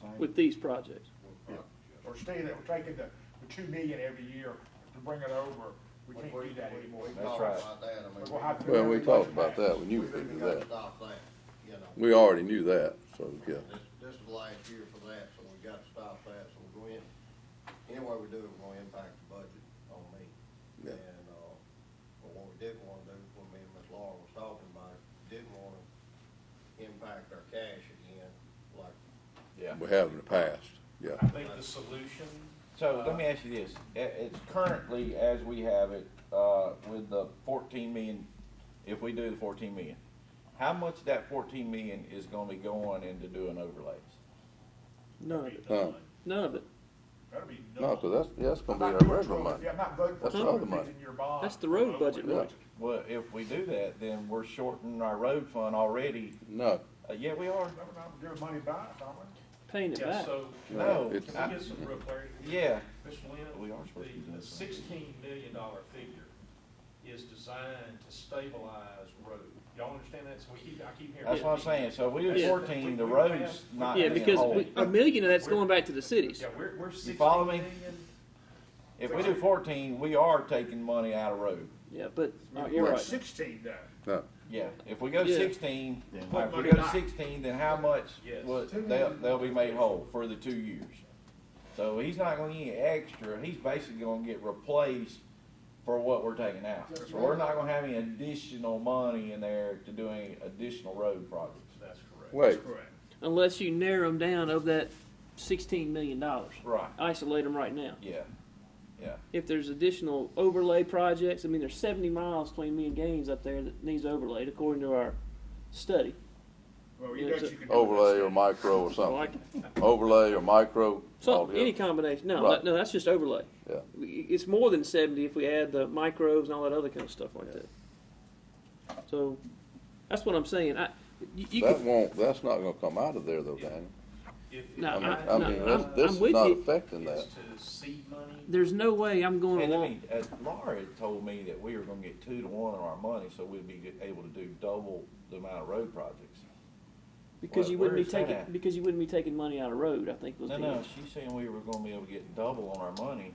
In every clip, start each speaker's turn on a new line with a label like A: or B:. A: thing.
B: with these projects.
A: Or Steve, that we're taking the, the two million every year to bring it over, we can't do that anymore.
C: That's right.
A: We're gonna have to do
D: Well, we
A: everything
D: talked about
A: back.
D: that when you
C: We've
D: were
C: even
D: into
C: got to
D: that.
C: stop that, you know.
D: We already knew that, so, yeah.
C: This, this is last year for that, so we gotta stop that, so we're going, any way we do it, we're gonna impact the budget on me.
D: Yeah.
C: And, uh, but what we didn't wanna do, when me and Miss Laura was talking about it, didn't wanna impact our cash again, like,
E: Yeah.
D: We have in the past, yeah.
F: I think the solution,
E: So let me ask you this, I- it's currently, as we have it, uh, with the fourteen million, if we do the fourteen million, how much of that fourteen million is gonna be going into doing overlays?
B: None of it,
D: No,
B: none of it.
A: That'll be nuts.
D: no, 'cause that's, that's
A: I'm
D: gonna
A: not
D: be our
A: voting
D: regular
A: for-
D: money.
A: Yeah, I'm not voting for
D: That's the other
A: something
D: money.
A: in your bond.
B: That's the road budget
D: Yeah.
B: money.
E: Well, if we do that, then we're shorting our road fund already,
D: No,
E: uh, yeah, we are,
A: Remember, not giving money back, aren't we?
B: Paying it
F: yeah,
B: back.
F: so,
E: no,
D: It's-
F: can
E: I-
F: we get some real clarity?
E: yeah,
F: Mr. Lynn?
E: We are supposed to be doing
F: The
E: something.
F: sixteen million dollar figure is designed to stabilize road. Y'all understand that? So we keep, I keep hearing.
E: that's what I'm saying, so we do
B: Yeah.
E: fourteen, the
F: We- we
E: road's
F: have-
E: not
B: Yeah,
E: in
B: because
E: whole.
B: we- a million of that's going back to the cities.
F: Yeah, we're, we're sixteen
E: follow me?
F: million.
E: If we do fourteen, we are taking money out of road,
B: Yeah, but
A: We're
B: you're
A: at
B: right.
A: Sixteen though.
D: no,
E: Yeah, if we go
B: Yeah.
E: sixteen,
A: Put
E: if we
A: money
E: go to
A: back.
E: sixteen, then how much
F: Yes.
E: will, they'll, they'll be made whole for the two years? So he's not gonna get any extra, he's basically gonna get replaced for what we're taking out.
C: That's
E: We're
C: right.
E: not gonna have any additional money in there to do any additional road projects.
F: That's correct.
D: wait,
A: Correct.
B: Unless you narrow them down of that sixteen million dollars.
E: Right,
B: Isolate them right now.
E: yeah, yeah,
B: If there's additional overlay projects, I mean, there's seventy miles between me and Gaines up there that needs overlaid according to our study.
A: Well, you know
B: Yeah,
A: what
B: it's
A: you can do.
D: overlay or micro or
B: Like,
D: something, overlay or micro. all
B: So,
D: the
B: any
D: other-
B: combination, no,
D: Right.
B: that- no, that's just overlay.
D: Yeah.
B: It's more than seventy if we add the microbes and all that other kind of stuff like that. So, that's what I'm saying, I, you, you
D: That
B: could,
D: won't, that's not gonna come out of there though, Daniel.
F: If- if
B: No,
D: I mean,
B: I-
D: I
B: no,
D: mean,
B: I'm-
D: that's, this
B: I'm
D: is
B: with
D: not
B: you.
D: affecting
F: Is
D: that.
F: to seed money.
B: there's no way I'm going
E: and I
B: along,
E: mean, uh, Laura had told me that we were gonna get two to one on our money, so we'd be able to do double the amount of road projects.
B: because
E: Where-
B: you wouldn't
E: where
B: be
E: is that
B: taking,
E: at?
B: because you wouldn't be taking money out of road, I think was the.
E: No, no, she's saying we were gonna be able to get double on our money,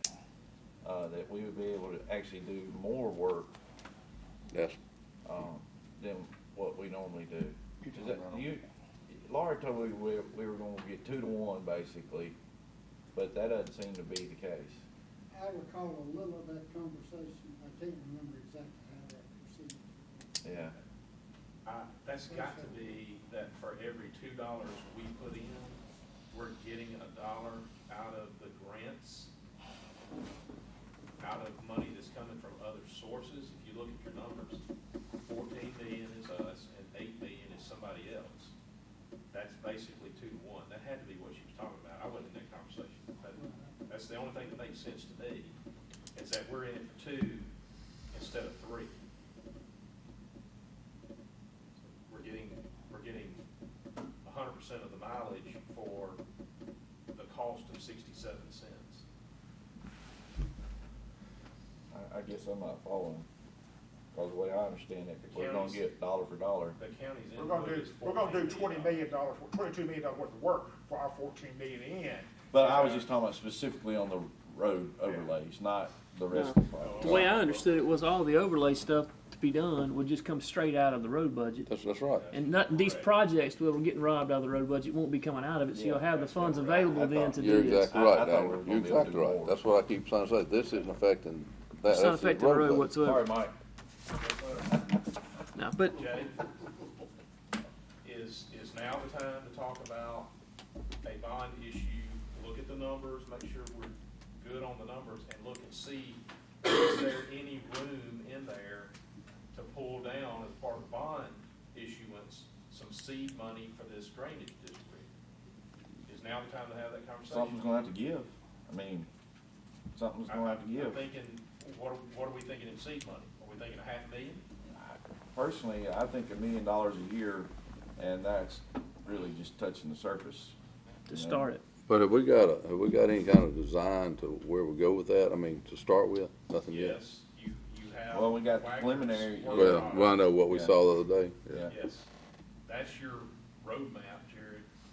E: uh, that we would be able to actually do more work,
D: That's,
E: um, than what we normally do. Is that- you- Laura told me we, we were gonna get two to one basically, but that doesn't seem to be the case.
G: I recall a little of that conversation, I can't remember exactly how that proceeded.
E: Yeah,
F: I- That's got to be that for every two dollars we put in, we're getting a dollar out of the grants, out of money that's coming from other sources. If you look at your numbers, fourteen million is us and eight million is somebody else. That's basically two to one. That had to be what she was talking about. I wasn't in that conversation. but That's the only thing that makes sense to me, is that we're in it for two instead of three. We're getting, we're getting a hundred percent of the mileage for the cost of sixty-seven cents.
E: I, I guess I'm not following, cause the way I understand it, we're gonna
F: Counties.
E: get dollar for dollar.
F: The county's
A: We're gonna
F: input
A: do,
F: is
A: we're gonna do
F: $14
A: twenty million dollars, twenty-two million dollars worth of work for our fourteen million in.
E: But I was just talking about specifically on the road overlays, not the rest of the project.
B: The way I understood it was all the overlay stuff to be done would just come straight out of the road budget.
D: that's, that's right.
B: And not, these projects where we're getting robbed out of the road budget won't be coming out of it, so you'll have the funds available then to
D: You're
B: do this.
D: exactly
E: I- I
D: right,
E: thought we were
D: Daniel.
E: gonna
D: You're
E: be able to
D: exactly
E: do
D: right.
E: more.
D: That's what I keep trying to say. This isn't affecting that.
B: It's not
D: That's
B: affecting the road
D: budget.
B: whatsoever,
E: Sorry, Mike.
B: no, but,
F: Jay, is, is now the time to talk about a bond issue, look at the numbers, make sure we're good on the numbers, and look and see, is there any room in there to pull down as part of bond issuance, some seed money for this drainage district? Is now the time to have that conversation?
E: Something's gonna have to give. I mean, something's
F: I-
E: gonna have to
F: I'm
E: give.
F: thinking, what, are- what are we thinking in seed money? Are we thinking a half million?
E: Personally, I think a million dollars a year, and that's really just touching the surface.
B: to start it.
D: But have we got a, have we got any kind of design to where we go with that? I mean, to start with, nothing yet.
F: Yes, you, you have.
E: Well, we got the
F: Wagner's
E: preliminary-
F: working
D: Well,
F: on it.
D: well, I know what we
E: Yeah.
D: saw the other day.
E: Yeah.
F: Yes, that's your roadmap